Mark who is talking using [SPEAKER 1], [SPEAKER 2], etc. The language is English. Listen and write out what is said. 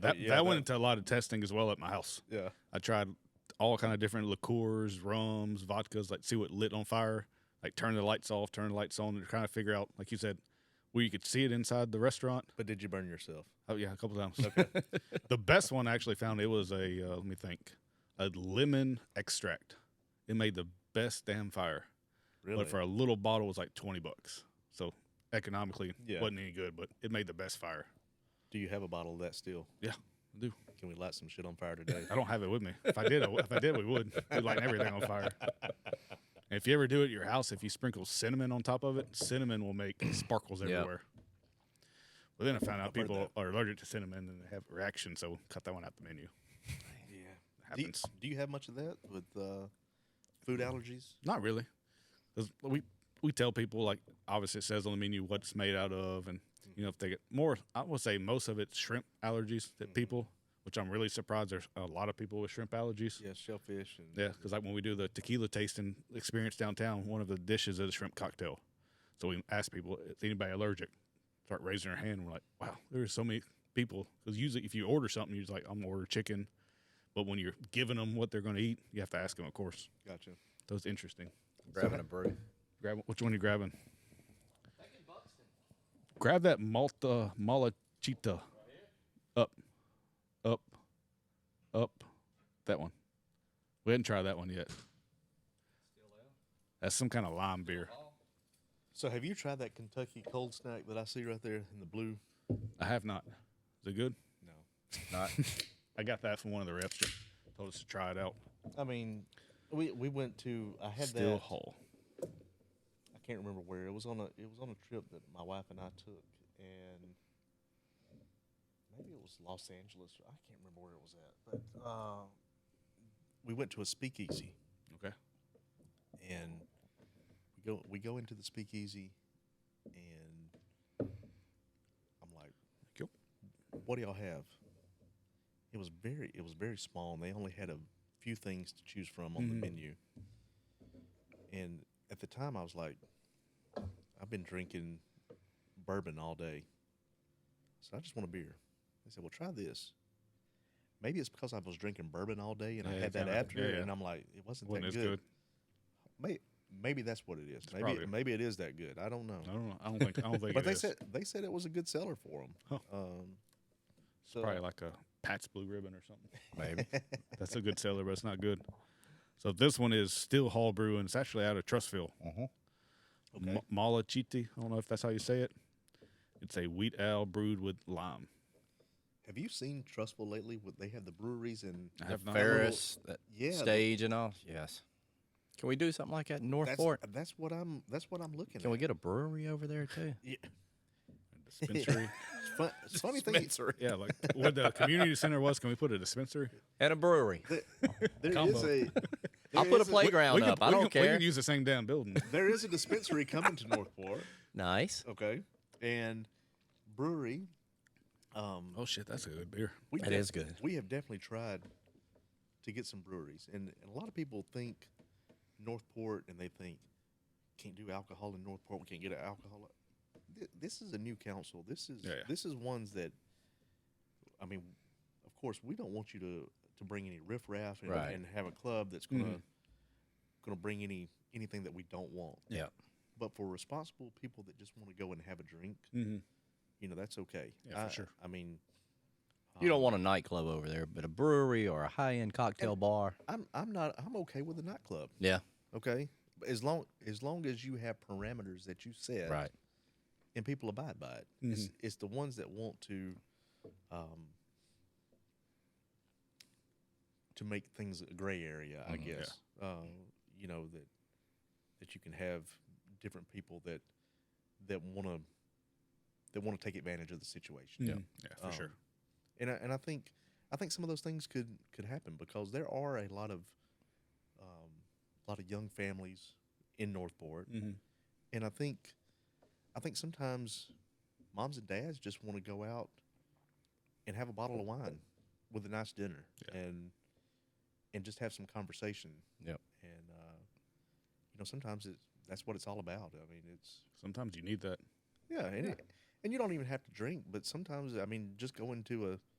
[SPEAKER 1] That
[SPEAKER 2] yeah,
[SPEAKER 1] that went
[SPEAKER 2] that-
[SPEAKER 1] into a lot of testing as well at my house.
[SPEAKER 2] Yeah.
[SPEAKER 1] I tried all kind of different liqueurs, rums, vodkas, like see what lit on fire, like turn the lights off, turn the lights on, and trying to figure out, like you said, where you could see it inside the restaurant.
[SPEAKER 2] But did you burn yourself?
[SPEAKER 1] Oh yeah, a couple times. the best one I actually found it was a uh, let me think, a lemon extract. It made the best damn fire,
[SPEAKER 2] Really?
[SPEAKER 1] but for a little bottle it was like twenty bucks. So economically,
[SPEAKER 2] Yeah.
[SPEAKER 1] wasn't any good, but it made the best fire.
[SPEAKER 2] do you have a bottle of that still?
[SPEAKER 1] Yeah, I do.
[SPEAKER 2] Can we light some shit on fire today?
[SPEAKER 1] I don't have it with me. If I did, I w if I did, we would. We'd light everything on fire. And if you ever do it at your house, if you sprinkle cinnamon on top of it, cinnamon will make sparkles
[SPEAKER 3] Yeah.
[SPEAKER 1] everywhere. But then I found out
[SPEAKER 2] heard
[SPEAKER 1] people
[SPEAKER 2] that.
[SPEAKER 1] are allergic to cinnamon and they have reactions, so cut that one out the menu.
[SPEAKER 2] yeah. Do you,
[SPEAKER 1] happens.
[SPEAKER 2] do you have much of that with uh, food allergies?
[SPEAKER 1] Not really. 'Cause We we tell people like obviously it says on the menu what it's made out of, and you know if they get more, I would say most of it's shrimp allergies
[SPEAKER 2] Mm-hmm.
[SPEAKER 1] that people, which I'm really surprised there's a lot of people with shrimp allergies.
[SPEAKER 2] Yeah, shellfish and
[SPEAKER 1] Yeah, because like when we do the tequila tasting experience downtown, one of the dishes is a shrimp cocktail. So we ask people, is anybody allergic? Start raising their hand. We're like, wow, there are so many people. Because usually, if you order something, you're just like, I'm gonna order chicken. But when you're giving them what they're gonna eat, you have to ask them, of course.
[SPEAKER 2] gotcha.
[SPEAKER 1] So it's interesting.
[SPEAKER 3] Grabbing a brew.
[SPEAKER 1] Grab which one you grabbing? Grab that Malta Malachita. Up, up, up. That one. We didn't try that one yet. That's some kind of lime beer.
[SPEAKER 2] So have you tried that Kentucky cold snack that I see right there in the blue?
[SPEAKER 1] I have not. Is it good?
[SPEAKER 2] No.
[SPEAKER 3] Not
[SPEAKER 1] I got that from one of the reps. That told us to try it out.
[SPEAKER 2] I mean, we we went to I had
[SPEAKER 1] Still
[SPEAKER 2] that
[SPEAKER 1] whole.
[SPEAKER 2] I can't remember where. It was on a it was on a trip that my wife and I took and maybe it was Los Angeles. I can't remember where it was at. But uh, we went to a speakeasy
[SPEAKER 1] Okay.
[SPEAKER 2] and we go we go into the speakeasy and I'm like
[SPEAKER 1] Cool.
[SPEAKER 2] what do y'all have? It was very it was very small, and they only had a few things to choose from on
[SPEAKER 1] Mm-hmm.
[SPEAKER 2] the menu. And at the time, I was like, I've been drinking bourbon all day, so I just want a beer. They said, Well, try this. Maybe it's because I was drinking bourbon all day and I
[SPEAKER 1] Yeah,
[SPEAKER 2] had that
[SPEAKER 1] kinda-
[SPEAKER 2] after,
[SPEAKER 1] yeah, yeah.
[SPEAKER 2] and I'm like, it wasn't,
[SPEAKER 1] Wasn't
[SPEAKER 2] that
[SPEAKER 1] as
[SPEAKER 2] good.
[SPEAKER 1] good.
[SPEAKER 2] May Maybe that's what it is. Maybe
[SPEAKER 1] probably-
[SPEAKER 2] maybe it is that good. I don't know.
[SPEAKER 1] I don't know. I don't think. I don't think.
[SPEAKER 2] but
[SPEAKER 1] it
[SPEAKER 2] they
[SPEAKER 1] is.
[SPEAKER 2] said they said it was a good seller for them.
[SPEAKER 1] Huh.
[SPEAKER 2] Um,
[SPEAKER 1] it's
[SPEAKER 2] so-
[SPEAKER 1] probably like a Pat's Blue Ribbon or something.
[SPEAKER 3] maybe.
[SPEAKER 1] That's a good seller, but it's not good. So this one is Still Hall Brew, and it's actually out of Trustville.
[SPEAKER 2] Okay.
[SPEAKER 1] M- Malachiti. I don't know if that's how you say it. It's a wheat ale brewed with lime.
[SPEAKER 2] Have you seen Trustful lately? What they have the breweries in
[SPEAKER 1] I
[SPEAKER 3] The
[SPEAKER 1] have not.
[SPEAKER 3] Ferris, that
[SPEAKER 2] Yeah, the-
[SPEAKER 3] stage and all. Yes. Can we do something like that in North
[SPEAKER 2] that's,
[SPEAKER 3] Fort?
[SPEAKER 2] that's what I'm that's what I'm looking
[SPEAKER 3] Can
[SPEAKER 2] at.
[SPEAKER 3] we get a brewery over there too?
[SPEAKER 2] yeah.
[SPEAKER 1] Dispensary.
[SPEAKER 2] It's fun, it's funny thing.
[SPEAKER 1] yeah, like what the community center was. Can we put a dispensary?
[SPEAKER 3] and a brewery.
[SPEAKER 2] There
[SPEAKER 1] Combo.
[SPEAKER 2] is a
[SPEAKER 3] I'll
[SPEAKER 2] there
[SPEAKER 3] put a
[SPEAKER 2] is
[SPEAKER 3] playground
[SPEAKER 1] we
[SPEAKER 3] up.
[SPEAKER 1] could-
[SPEAKER 3] I
[SPEAKER 1] we
[SPEAKER 3] don't
[SPEAKER 1] could- We
[SPEAKER 3] care.
[SPEAKER 1] can use the same damn building.
[SPEAKER 2] There is a dispensary coming to Northport.
[SPEAKER 3] nice.
[SPEAKER 1] Oh.
[SPEAKER 2] Okay. And brewery. Um
[SPEAKER 1] Oh shit, that's a good beer.
[SPEAKER 2] we
[SPEAKER 3] That is good.
[SPEAKER 2] We have definitely tried to get some breweries. And, and a lot of people think Northport and they think can't do alcohol in Northport, we can't get alcohol. Th- This is a new council. This is
[SPEAKER 1] Yeah, yeah.
[SPEAKER 2] this is ones that I mean, of course, we don't want you to to bring any riffraff and,
[SPEAKER 3] Right. Mm-hmm.
[SPEAKER 2] and have a club that's going to going to bring any anything that we don't want.
[SPEAKER 3] Yeah.
[SPEAKER 2] But for responsible people that just want to go and have a drink,
[SPEAKER 1] Mm-hmm.
[SPEAKER 2] you know, that's okay.
[SPEAKER 1] Yeah, for
[SPEAKER 2] I-
[SPEAKER 1] sure.
[SPEAKER 2] I mean,
[SPEAKER 3] You
[SPEAKER 2] um,
[SPEAKER 3] don't want a nightclub over there, but a brewery or a high-end cocktail bar.
[SPEAKER 2] I'm I'm not I'm okay with a nightclub.
[SPEAKER 3] Yeah.
[SPEAKER 2] Okay. But As long as long as you have parameters that you set
[SPEAKER 3] Right. Mm-hmm.
[SPEAKER 2] and people abide by it. It's it's the ones that want to um to make things a gray area, I
[SPEAKER 3] Mhm. Yeah.
[SPEAKER 2] guess. Uh, you know, that that you can have different people that that wanna that want to take advantage of the situation.
[SPEAKER 1] Yeah, yeah, for
[SPEAKER 3] Oh.
[SPEAKER 2] Um,
[SPEAKER 1] sure.
[SPEAKER 2] and I, and I think I think some of those things could could happen because there are a lot of um, a lot of young families in Northport,
[SPEAKER 1] Mhm.
[SPEAKER 2] and I think I think sometimes moms and dads just want to go out and have a bottle of wine with a nice dinner
[SPEAKER 1] Yeah.
[SPEAKER 2] and and just have some conversation.
[SPEAKER 3] Yep.
[SPEAKER 2] And uh, you know, sometimes it's that's what it's all about. I mean, it's
[SPEAKER 1] Sometimes you need that.
[SPEAKER 2] yeah, and It, and you don't even have to drink, but sometimes I mean, just going to a